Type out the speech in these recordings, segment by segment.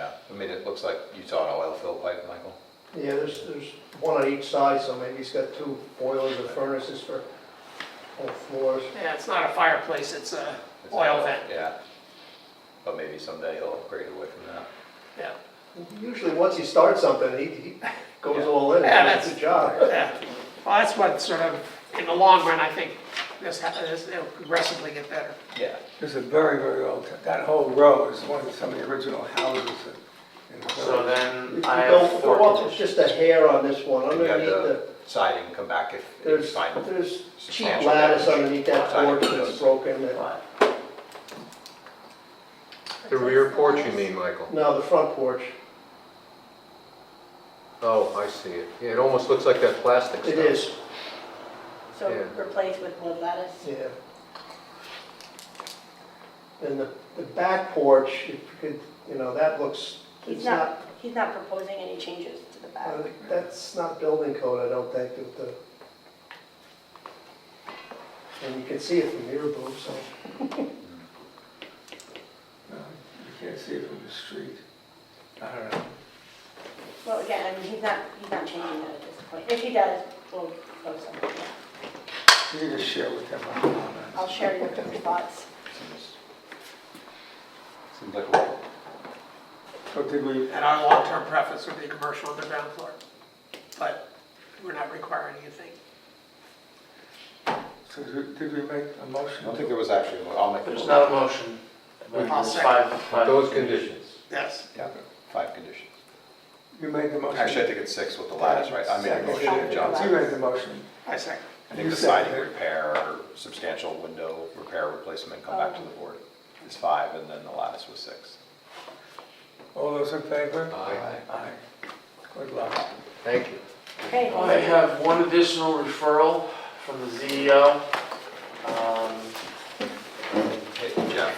I mean, it looks like you saw an oil fill pipe, Michael. Yeah, there's, there's one on each side, so maybe he's got two boilers and furnaces for both floors. Yeah, it's not a fireplace, it's a oil vent, Yeah. But maybe someday he'll upgrade away from that. yeah. Usually, once he starts something, he, he goes Yeah. all in, Yeah, and does a that's- good job. Yeah, well, that's what sort of, in the long run, I think this, ha- this, it'll progressively get better. Yeah. It's a very, very old, that whole row is one of some of the original houses in- in the So village. then I Go, have go four up with conditions. just a hair on this one, And you have underneath the the, siding come back if if you there's, find there's cheap substantial lattice damage. underneath that Siding porch that's windows. broken. that- The rear porch, you mean, Michael? No, the front porch, Oh, I see it. Yeah, it almost looks like that plastic stuff. it is, So Yeah. replace with wood lattice? yeah. And the, the back porch, if you could, you know, that looks, He's it's not, not, he's not proposing any changes to the back. uh, that's not building code, I don't think, that the. And you can see it from here, Boo, so. No, Uh, You can't see it from the street. I don't know. Well, again, I mean, he's not, he's not changing that at this point. If he does, we'll propose something. yeah. You can just share with them. I don't know. I'll share your thoughts. Seems- Seems like a lot. So did we, And our long-term preference would be commercial on the ground floor, but we're not requiring anything. so did did we make a I motion? don't think there was actually, I'll make There's those not a motion. but I'll there's second. five- five Those conditions. Yes, five conditions. You made the motion. Actually, I think it's six with the lattice, right? I made a motion, Second. Johnson. You made the motion. I second. I think the siding repair, or substantial window repair replacement, come back to the board. It's five, and then the lattice was six. All those in favor? Aye. Aye. Good luck. Thank you. Okay, Oh, I have one additional referral from the CEO. Um, Hey, Jeff,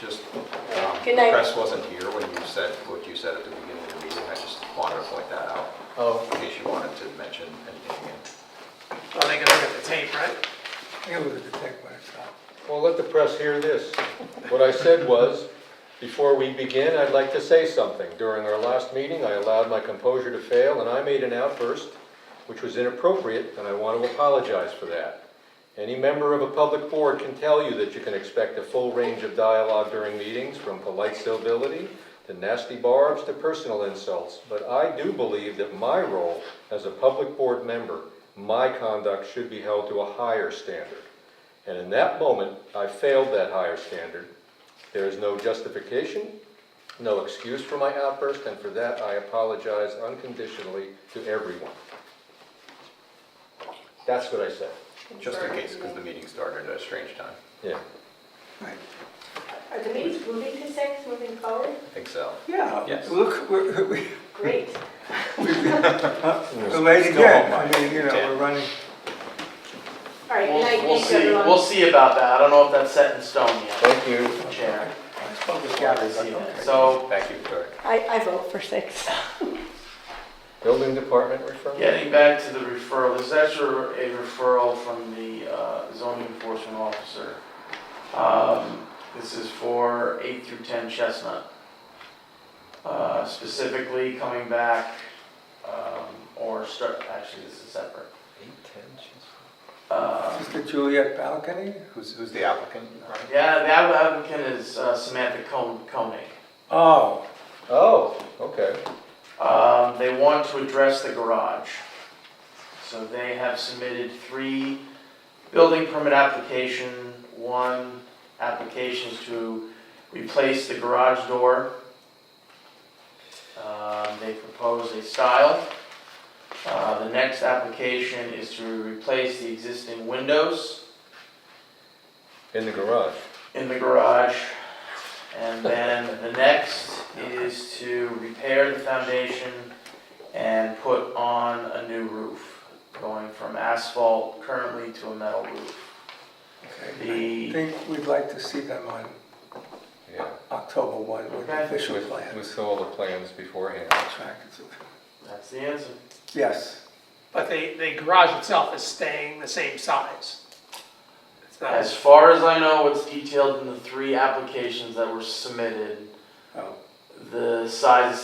just, um, the Good night. press wasn't here when you said, what you said at the beginning of the meeting. I just wanted to point that out, Um, Oh, in case you wanted to mention anything again. Well, they can look at the tape, right? It was a detective myself. Well, let the press hear this. What I said was, before we begin, I'd like to say something. During our last meeting, I allowed my composure to fail, and I made an outburst which was inappropriate, and I want to apologize for that. Any member of a public board can tell you that you can expect a full range of dialogue during meetings, from polite civility to nasty barbs to personal insults. But I do believe that my role as a public board member, my conduct should be held to a higher standard. And in that moment, I failed that higher standard. There is no justification, no excuse for my outburst, and for that, I apologize unconditionally to everyone. That's what I said, Just in case, because the meeting started at a strange time. yeah. Are the meetings moving to six, moving forward? I think so. Yeah, Yes. look, we're- we, Great. the lady Still did. home, I mean, you know, Yeah. we're running. All right, good we'll, night, we'll thanks see, everyone. we'll see about that. I don't know if that's set in stone yet, Thank you. Chair. I spoke with We'll Gary, see but that. okay. So, Thank you, Victoria. I, I vote for six. Building department referral? getting back to the referral, this is actually a referral from the uh, zoning enforcement officer. Um, This is for eight through 10 Chestnut. Uh, Specifically coming back, um, or start, actually, this is separate. Um, Just the Juliet balcony? Who's, who's the applicant? Ryan? Yeah, the applicant is uh, Samantha Kon- Koenig. Oh. Oh, okay. Um, they want to address the garage. So they have submitted three building permit application, one application is to replace the garage door. Um, they propose a style. Uh, the next application is to replace the existing windows In the garage. in the garage. And then the next is to repair the foundation and put on a new roof, going from asphalt currently to a metal roof. Okay. I The- think we'd like to see them on Yeah. October 1 with the Okay. official With- We plans. saw the plans beforehand. Track it. That's the answer. Yes, But the, the garage itself is staying the same size. It's not- As far as I know, what's detailed in the three applications that were submitted, oh, the size is